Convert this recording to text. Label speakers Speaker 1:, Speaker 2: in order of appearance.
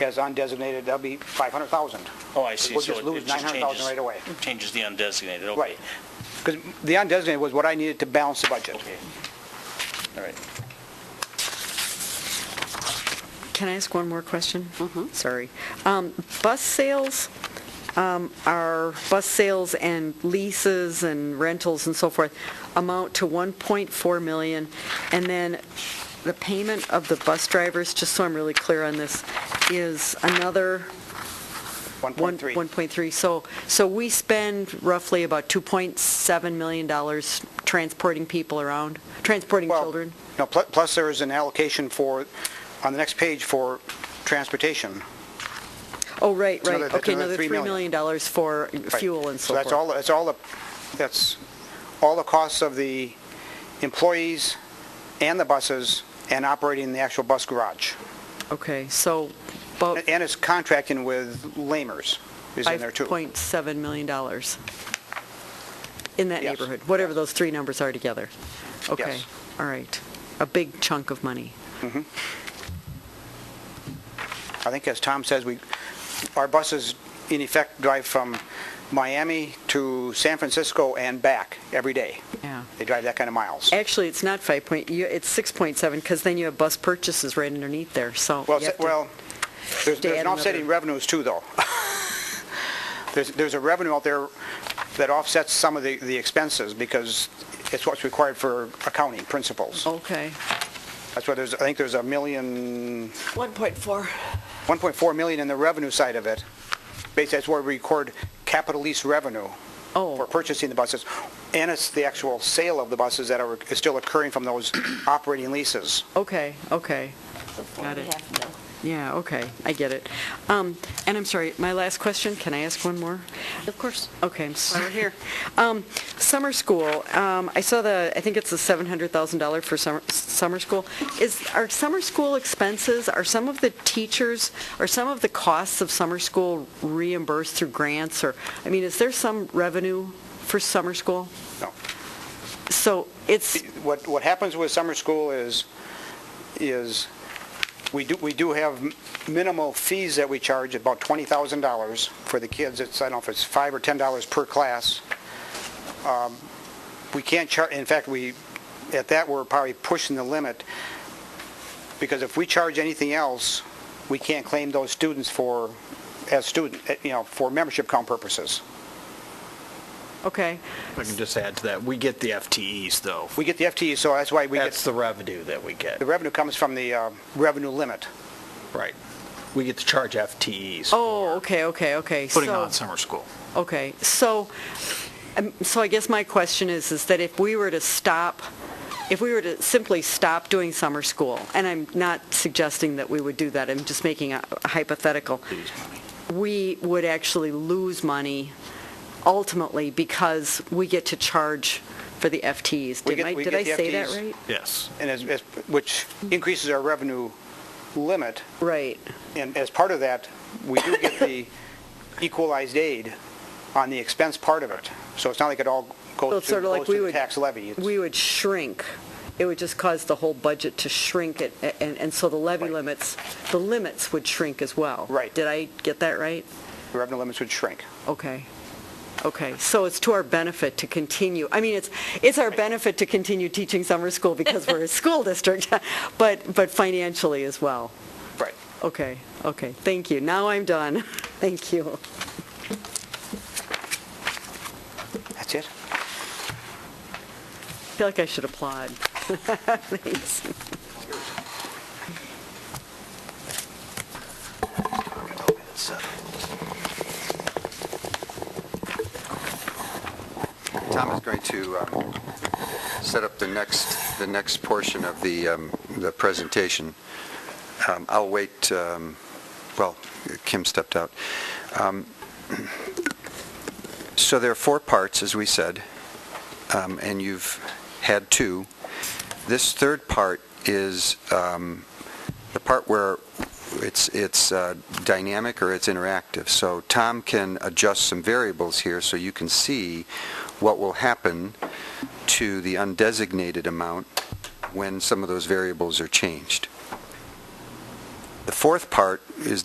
Speaker 1: as undesignated, that'll be 500,000.
Speaker 2: Oh, I see.
Speaker 1: We'll
Speaker 2: So
Speaker 1: just
Speaker 2: it-
Speaker 1: lose
Speaker 2: it just
Speaker 1: 900,000
Speaker 2: changes-
Speaker 1: right away.
Speaker 2: Changes the undesignated, okay.
Speaker 1: Right. Because the undesignated was what I needed to balance the budget.
Speaker 2: Okay. All right.
Speaker 3: Can I ask one more question?
Speaker 1: Mm-hmm.
Speaker 3: Sorry. Um, Bus sales, um, are, bus sales and leases and rentals and so forth amount to 1.4 million, and then the payment of the bus drivers, just so I'm really clear on this, is another one-
Speaker 1: 1.3.
Speaker 3: 1.3. So, so we spend roughly about $2.7 million dollars transporting people around, transporting
Speaker 1: Well,
Speaker 3: children?
Speaker 1: No, pl- plus there is an allocation for, on the next page, for transportation.
Speaker 3: Oh, right, right.
Speaker 1: another- that's
Speaker 3: Okay,
Speaker 1: another
Speaker 3: another
Speaker 1: $3
Speaker 3: $3 million dollars for
Speaker 1: Right.
Speaker 3: fuel and so forth.
Speaker 1: that's all, that's all, the that's all the costs of the employees and the buses and operating the actual bus garage.
Speaker 3: Okay, so about
Speaker 1: And it's contracting with Lamers is in there too.
Speaker 3: $5.7 million dollars in that
Speaker 1: Yes.
Speaker 3: neighborhood, whatever those three numbers are together. Okay,
Speaker 1: Yes.
Speaker 3: all right. A big chunk of money.
Speaker 1: I think as Tom says, we, our buses in effect drive from Miami to San Francisco and back every day.
Speaker 3: Yeah.
Speaker 1: They drive that kind of miles.
Speaker 3: Actually, it's not 5 point, you- it's 6.7, because then you have bus purchases right underneath there, so.
Speaker 1: Well,
Speaker 3: you have
Speaker 1: se-
Speaker 3: to-
Speaker 1: well, there's,
Speaker 3: to
Speaker 1: there's
Speaker 3: add
Speaker 1: an offset in
Speaker 3: another-
Speaker 1: revenues too, though. There's, there's a revenue out there that offsets some of the, the expenses because it's what's required for accounting principles.
Speaker 3: Okay,
Speaker 1: That's why there's, I think there's a million,
Speaker 4: 1.4.
Speaker 1: 1.4 million in the revenue side of it. Basically, that's where we record capital lease revenue for
Speaker 3: oh,
Speaker 1: purchasing the buses. And it's the actual sale of the buses that are, is still occurring from those operating leases.
Speaker 3: okay, okay. Got it. Yeah, okay, I get it. Um, And I'm sorry, my last question, can I ask one more?
Speaker 4: Of course.
Speaker 3: Okay, I'm sorry. here. Um, Summer school, um, I saw the, I think it's the $700,000 for summer, summer school. Is, are summer school expenses, are some of the teachers, are some of the costs of summer school reimbursed through grants, or, I mean, is there some revenue for summer school?
Speaker 1: No.
Speaker 3: So it's,
Speaker 1: What, what happens with summer school is, is we do, we do have minimal fees that we charge, about $20,000 for the kids. It's, I don't know if it's 5 or $10 per class. Um, We can't char, in fact, we, at that, we're probably pushing the limit because if we charge anything else, we can't claim those students for, as student, eh, you know, for membership count purposes.
Speaker 3: okay,
Speaker 5: If I can just add to that, we get the FTEs, though.
Speaker 1: We get the FTE, so that's why we
Speaker 5: That's
Speaker 1: get,
Speaker 5: the revenue that we get,
Speaker 1: the revenue comes from the uh, revenue limit.
Speaker 5: right. We get to charge FTEs.
Speaker 3: oh, okay, okay, okay.
Speaker 5: Putting
Speaker 3: So-
Speaker 5: on summer school.
Speaker 3: Okay, so, um, so I guess my question is, is that if we were to stop, if we were to simply stop doing summer school, and I'm not suggesting that we would do that, I'm just making a hypothetical, we would actually lose money ultimately because we get to charge for the FTEs.
Speaker 1: We
Speaker 3: Did
Speaker 1: get-
Speaker 3: I-
Speaker 1: we
Speaker 3: did
Speaker 1: get
Speaker 3: I
Speaker 1: the
Speaker 3: say that
Speaker 1: FTEs.
Speaker 3: right?
Speaker 5: Yes.
Speaker 1: and as, as- which increases our revenue limit,
Speaker 3: Right,
Speaker 1: and as part of that, we do get the equalized aid on the expense part of it. So it's not like it all
Speaker 3: So
Speaker 1: goes
Speaker 3: it's
Speaker 1: to,
Speaker 3: sort of like
Speaker 1: goes
Speaker 3: we
Speaker 1: to the
Speaker 3: would-
Speaker 1: tax levy. It's-
Speaker 3: we would shrink. It would just cause the whole budget to shrink, it, a- and, and so the levy
Speaker 1: Right.
Speaker 3: limits, the limits would shrink as well.
Speaker 1: Right.
Speaker 3: Did I get that right?
Speaker 1: The revenue limits would shrink.
Speaker 3: Okay. Okay, so it's to our benefit to continue, I mean, it's, it's our benefit to continue teaching summer school because we're a school district, but, but financially as well.
Speaker 1: Right.
Speaker 3: Okay, okay, thank you. Now I'm done. Thank you.
Speaker 1: That's it?
Speaker 3: I feel like I should applaud. Thanks.
Speaker 1: uh,
Speaker 6: Tom is going to um, set up the next, the next portion of the, um, the presentation. Um, I'll wait, um, well, Kim stepped out. Um, So there are four parts, as we said, um, and you've had two. This third part is um, the part where it's, it's uh, dynamic or it's interactive. So Tom can adjust some variables here so you can see what will happen to the undesignated amount when some of those variables are changed. The fourth part is